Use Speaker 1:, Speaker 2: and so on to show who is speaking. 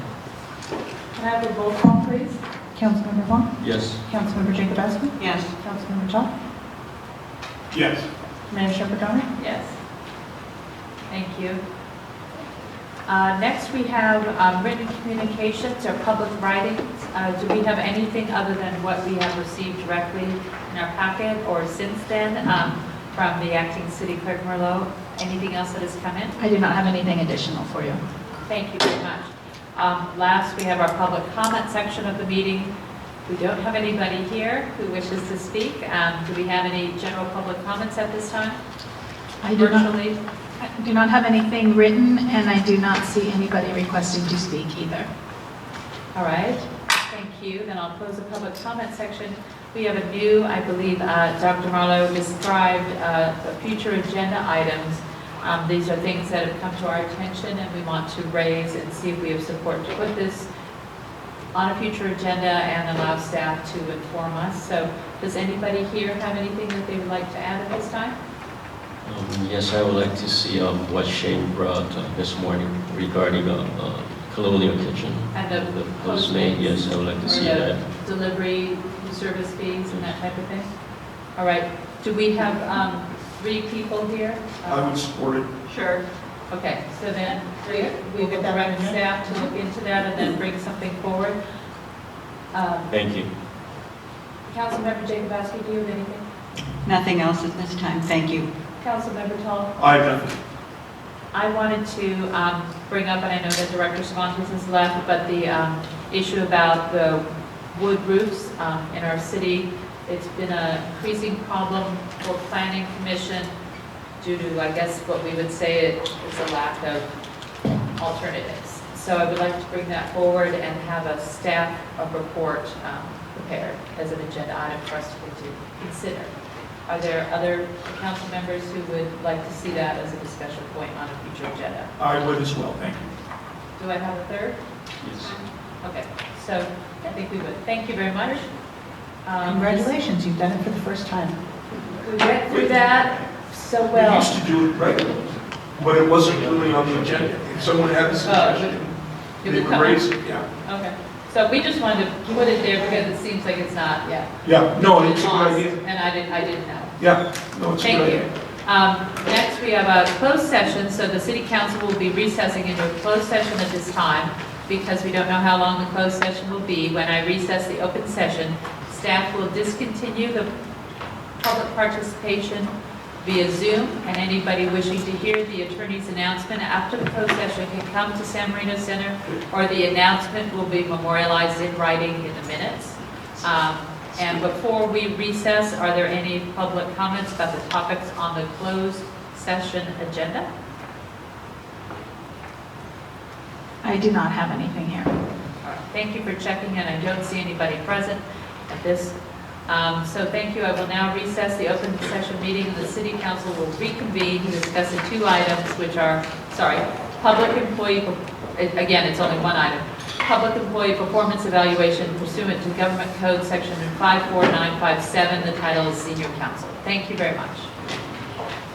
Speaker 1: Can I have a roll call, please?
Speaker 2: Councilmember Vaughn,
Speaker 3: Yes.
Speaker 2: Councilmember Jacobowski,
Speaker 4: Yes.
Speaker 2: Councilmember Chop,
Speaker 5: Yes.
Speaker 2: Mayor Shepherd Donnelly.
Speaker 1: Yes. Thank you. Uh, Next, we have um, written communications or public writings. Uh, Do we have anything other than what we have received directly in our packet or since then um, from the acting city clerk Merlot? Anything else that has come in?
Speaker 2: I do not have anything additional for you.
Speaker 1: Thank you very much. Um, Last, we have our public comment section of the meeting. We don't have anybody here who wishes to speak. Um, Do we have any general public comments at this time?
Speaker 2: I do not-
Speaker 1: Virtually?
Speaker 2: I do not have anything written, and I do not see anybody requesting to speak either.
Speaker 1: All right, thank you. Then I'll close the public comment section. We have a new, I believe, uh, Dr. Marlowe described uh, the future agenda items. Um, These are things that have come to our attention and we want to raise and see if we have support to put this on a future agenda and allow staff to inform us. So does anybody here have anything that they would like to add at this time?
Speaker 3: Um, Yes, I would like to see um, what Shane brought uh, this morning regarding uh, uh, Colonial Kitchen.
Speaker 1: And
Speaker 3: The
Speaker 1: the
Speaker 3: postmate, yes, I would like to see that.
Speaker 1: delivery, service fees and that type of thing? All right, do we have um, three people here?
Speaker 5: I would support it.
Speaker 1: Sure. Okay, so then we we will
Speaker 2: We'll get that
Speaker 1: direct
Speaker 2: in.
Speaker 1: staff to look into that and then bring something forward. Um,
Speaker 3: Thank you.
Speaker 1: Councilmember Jacobowski, do you have anything?
Speaker 4: Nothing else at this time, thank you.
Speaker 1: Councilmember Tall?
Speaker 5: I have nothing.
Speaker 1: I wanted to um, bring up, and I know that Director Savantes has left, but the um, issue about the wood roofs um, in our city. It's been an increasing problem for planning commission due to, I guess, what we would say it is a lack of alternatives. So I would like to bring that forward and have a staff of report um, prepared as an agenda item for us to consider. Are there other council members who would like to see that as a discussion point on a future agenda?
Speaker 5: I would as well, thank you.
Speaker 1: Do I have a third?
Speaker 3: Yes.
Speaker 1: Okay, so I think we would. Thank you very much. Um,
Speaker 2: Congratulations, you've done it for the first time.
Speaker 1: We went through that so
Speaker 5: We
Speaker 1: well.
Speaker 5: used to do it regularly, but it wasn't really on the agenda. If someone had a suggestion,
Speaker 1: It
Speaker 5: they
Speaker 1: Oh, would
Speaker 5: would
Speaker 1: come.
Speaker 5: raise it, yeah.
Speaker 1: Okay, so we just wanted to put it there because it seems like it's not, yeah.
Speaker 5: Yeah, no, Oh, it's a good idea.
Speaker 1: And I didn't, I didn't know.
Speaker 5: Yeah, no, it's a
Speaker 1: Thank
Speaker 5: good
Speaker 1: you.
Speaker 5: idea.
Speaker 1: Um, Next, we have a closed session, so the city council will be recessing into a closed session at this time because we don't know how long the closed session will be. When I recess the open session, staff will discontinue the public participation via Zoom, and anybody wishing to hear the attorney's announcement after the closed session can come to San Marino Center, or the announcement will be memorialized in writing in the minutes. Um, And before we recess, are there any public comments about the topics on the closed session agenda?
Speaker 2: I do not have anything here.
Speaker 1: All right, Thank you for checking in. I don't see anybody present at this. Um, So thank you. I will now recess the open session meeting, and the city council will reconvene to discuss the two items, which are, sorry, public employee, again, it's only one item, public employee performance evaluation pursuant to Government Code Section 54957, the title is senior council. Thank you very much.